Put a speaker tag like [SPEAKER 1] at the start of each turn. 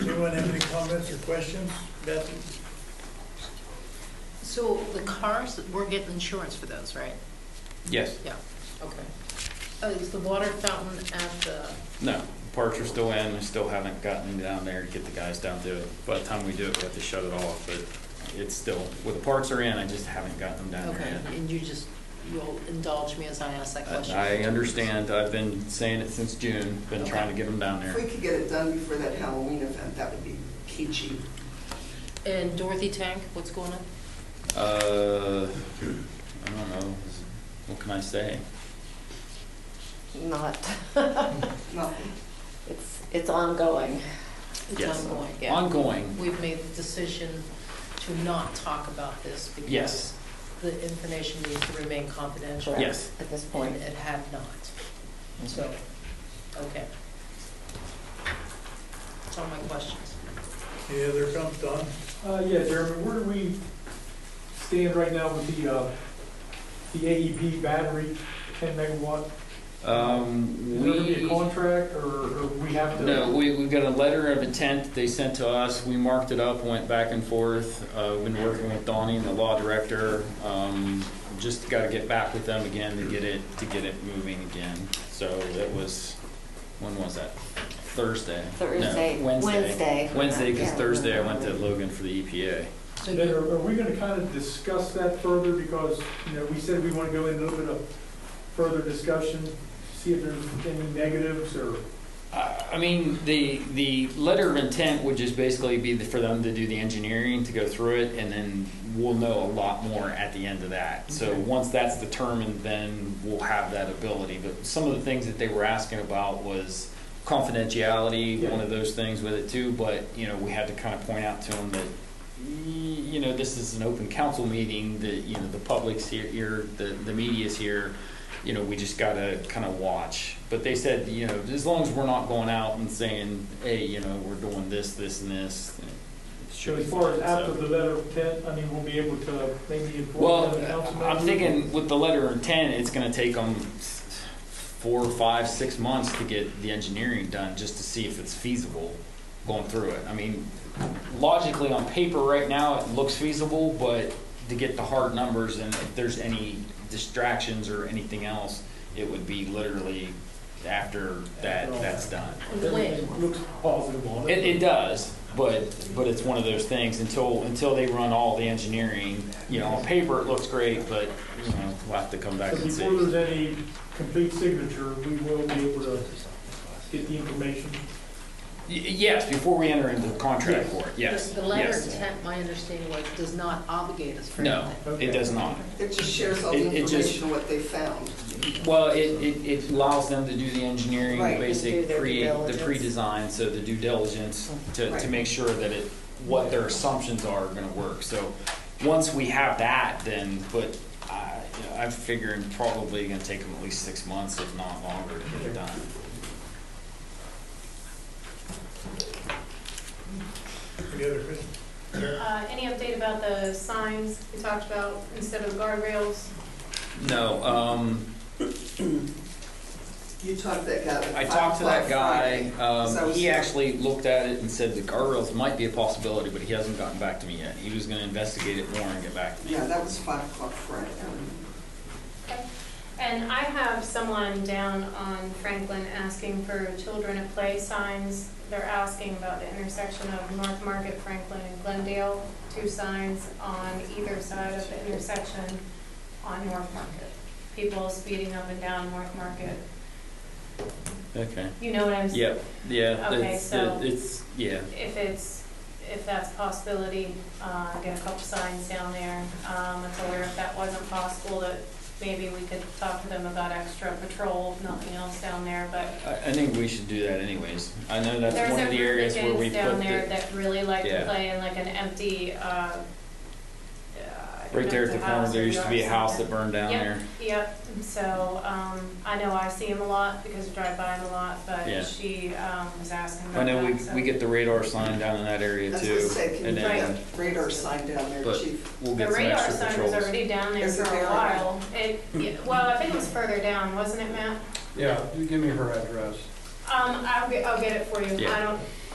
[SPEAKER 1] Anyone have any comments or questions? Beth?
[SPEAKER 2] So the cars, we're getting insurance for those, right?
[SPEAKER 3] Yes,
[SPEAKER 2] Yeah, okay. Uh, Is the water fountain at the,
[SPEAKER 3] no, parks are still in, I still haven't gotten down there to get the guys down to it. By the time we do it, we have to shut it off, but it's still, well, the parks are in, I just haven't gotten them down
[SPEAKER 2] okay,
[SPEAKER 3] there
[SPEAKER 2] and you just, you'll indulge me as I ask that
[SPEAKER 3] yet.
[SPEAKER 2] question?
[SPEAKER 3] I I understand, I've been saying it since June, been trying to get them down
[SPEAKER 4] If we
[SPEAKER 3] there.
[SPEAKER 4] could get it done before that Halloween event, that would be peachy.
[SPEAKER 2] And Dorothy Tank, what's going on?
[SPEAKER 3] Uh, I don't know, what can I say?
[SPEAKER 5] not,
[SPEAKER 4] Nothing.
[SPEAKER 5] it's, it's ongoing.
[SPEAKER 2] It's
[SPEAKER 3] Yes.
[SPEAKER 2] ongoing, yeah.
[SPEAKER 3] Ongoing,
[SPEAKER 2] We've made the decision to not talk about this because
[SPEAKER 3] Yes.
[SPEAKER 2] the information needs to remain confidential.
[SPEAKER 5] correct,
[SPEAKER 3] Yes.
[SPEAKER 5] At this point.
[SPEAKER 2] And it had not, so, okay. That's all my questions.
[SPEAKER 1] Any other comments, Don?
[SPEAKER 6] Uh, yeah, Jeremy, where do we stand right now with the, uh, the AEP battery, ten megawatt?
[SPEAKER 3] Um,
[SPEAKER 6] Is
[SPEAKER 3] we.
[SPEAKER 6] there gonna be a contract, or, or we have to?
[SPEAKER 3] No, we, we got a letter of intent that they sent to us, we marked it up, went back and forth, uh, been working with Donnie and the law director, um, just gotta get back with them again to get it, to get it moving again, so that was, when was that? Thursday? No,
[SPEAKER 5] Thursday.
[SPEAKER 3] Wednesday.
[SPEAKER 5] Wednesday.
[SPEAKER 3] Wednesday, cause
[SPEAKER 5] Yeah.
[SPEAKER 3] Thursday I went to Logan for the E EPA.
[SPEAKER 2] So
[SPEAKER 6] Then
[SPEAKER 2] you
[SPEAKER 6] are, are we gonna kind of discuss that further, because, you know, we said we wanna go in a little bit of further discussion, see if there's any negatives, or,
[SPEAKER 3] I I mean, the, the letter of intent would just basically be the- for them to do the engineering, to go through it, and then we'll know a lot more at the end of that. So
[SPEAKER 6] Okay.
[SPEAKER 3] once that's determined, then we'll have that ability. But some of the things that they were asking about was confidentiality,
[SPEAKER 6] Yeah.
[SPEAKER 3] one of those things with it too, but, you know, we had to kind of point out to them that, y- you know, this is an open council meeting, that, you know, the public's here- here, the, the media's here, you know, we just gotta kind of watch. But they said, you know, as long as we're not going out and saying, hey, you know, we're doing this, this, and this. it should be
[SPEAKER 6] as far as
[SPEAKER 3] fine,
[SPEAKER 6] after
[SPEAKER 3] so.
[SPEAKER 6] the letter of intent, I mean, we'll be able to maybe inform the
[SPEAKER 3] Well,
[SPEAKER 6] council
[SPEAKER 3] I'm
[SPEAKER 6] members?
[SPEAKER 3] thinking with the letter of intent, it's gonna take them four, five, six months to get the engineering done, just to see if it's feasible going through it. I mean, logically, on paper right now, it looks feasible, but to get the hard numbers and if there's any distractions or anything else, it would be literally after that, that's done.
[SPEAKER 2] win.
[SPEAKER 6] Everything Looks positive on
[SPEAKER 3] It, it does, but, but it's one of those things, until, until they run all the engineering, you know, on paper, it looks great, but, you know, we'll have to come back
[SPEAKER 6] So
[SPEAKER 3] and
[SPEAKER 6] before
[SPEAKER 3] see.
[SPEAKER 6] there's any complete signature, we will be able to get the information.
[SPEAKER 3] Y- Yes, before we enter into the contract for it, yes,
[SPEAKER 2] The letter of
[SPEAKER 3] yes.
[SPEAKER 2] intent, my understanding was, does not obligate us for
[SPEAKER 3] No,
[SPEAKER 2] anything.
[SPEAKER 3] it does not.
[SPEAKER 4] It just shares all the
[SPEAKER 3] It- it just-
[SPEAKER 4] information of what they found.
[SPEAKER 3] Well, it, it, it allows them to do the engineering,
[SPEAKER 5] Right, and do
[SPEAKER 3] basic,
[SPEAKER 5] their due
[SPEAKER 3] create the
[SPEAKER 5] diligence.
[SPEAKER 3] pre-design, so the due diligence to, to
[SPEAKER 4] Right.
[SPEAKER 3] make sure that it, what their assumptions are gonna work, so once we have that, then, but uh, I, I'm figuring probably gonna take them at least six months, if not longer, to get it done.
[SPEAKER 1] Any other questions?
[SPEAKER 7] Uh, Any update about the signs we talked about instead of the guardrails?
[SPEAKER 3] No, um,
[SPEAKER 4] You talked to that guy. at
[SPEAKER 3] I
[SPEAKER 4] five
[SPEAKER 3] talked to that
[SPEAKER 4] o'clock
[SPEAKER 3] guy,
[SPEAKER 4] Friday.
[SPEAKER 3] um, he actually looked at it and said the guardrails might be a possibility, but he hasn't gotten back to me yet, he was gonna investigate it more and get back to me.
[SPEAKER 4] Yeah, that was five o'clock Friday. I remember.
[SPEAKER 7] And I have someone down on Franklin asking for children at play signs. They're asking about the intersection of North Market, Franklin, and Glendale, two signs on either side of the intersection on North Market. People speeding up and down North Market.
[SPEAKER 3] Okay.
[SPEAKER 7] You know what I'm saying?
[SPEAKER 3] Yep, yeah,
[SPEAKER 7] Okay,
[SPEAKER 3] it's,
[SPEAKER 7] so-
[SPEAKER 3] it's, yeah.
[SPEAKER 7] if it's, if that's a possibility, uh, get a couple signs down there. Um, I told her if that wasn't possible, that maybe we could talk to them about extra patrol, if nothing else down there, but
[SPEAKER 3] I, I think we should do that anyways. I know that's
[SPEAKER 7] there's
[SPEAKER 3] one
[SPEAKER 7] a
[SPEAKER 3] of the
[SPEAKER 7] group of
[SPEAKER 3] areas where we
[SPEAKER 7] kids down
[SPEAKER 3] put
[SPEAKER 7] there
[SPEAKER 3] the,
[SPEAKER 7] that really like
[SPEAKER 3] Yeah.
[SPEAKER 7] to play in like an empty, uh, uh, I don't
[SPEAKER 3] right
[SPEAKER 7] know
[SPEAKER 3] there
[SPEAKER 7] if
[SPEAKER 3] at the
[SPEAKER 7] it's a house
[SPEAKER 3] corner, there
[SPEAKER 7] or
[SPEAKER 3] used to be a
[SPEAKER 7] yard
[SPEAKER 3] house
[SPEAKER 7] something.
[SPEAKER 3] that burned down
[SPEAKER 7] Yep.
[SPEAKER 3] there.
[SPEAKER 7] Yep, so, um, I know I see him a lot because I drive by him a lot,
[SPEAKER 3] Yeah.
[SPEAKER 7] but she, um, was asking
[SPEAKER 3] I
[SPEAKER 7] about that.
[SPEAKER 3] know we,
[SPEAKER 7] so-
[SPEAKER 3] we get the radar sign down in that area
[SPEAKER 4] That's what I
[SPEAKER 3] too.
[SPEAKER 4] said, can you
[SPEAKER 3] And
[SPEAKER 4] put
[SPEAKER 3] then
[SPEAKER 4] that radar sign down there,
[SPEAKER 3] But-
[SPEAKER 4] chief?
[SPEAKER 3] we'll
[SPEAKER 7] The
[SPEAKER 3] get some
[SPEAKER 7] radar
[SPEAKER 3] extra
[SPEAKER 7] sign was
[SPEAKER 3] patrols.
[SPEAKER 7] already down there
[SPEAKER 4] Is
[SPEAKER 7] for
[SPEAKER 4] it
[SPEAKER 7] a
[SPEAKER 4] there?
[SPEAKER 7] while. It, yeah, well, I think it was further down, wasn't it, Matt?
[SPEAKER 8] Yeah, you give me her address.
[SPEAKER 7] Um, I'll get, I'll get it for you.
[SPEAKER 3] Yeah.
[SPEAKER 7] I don't,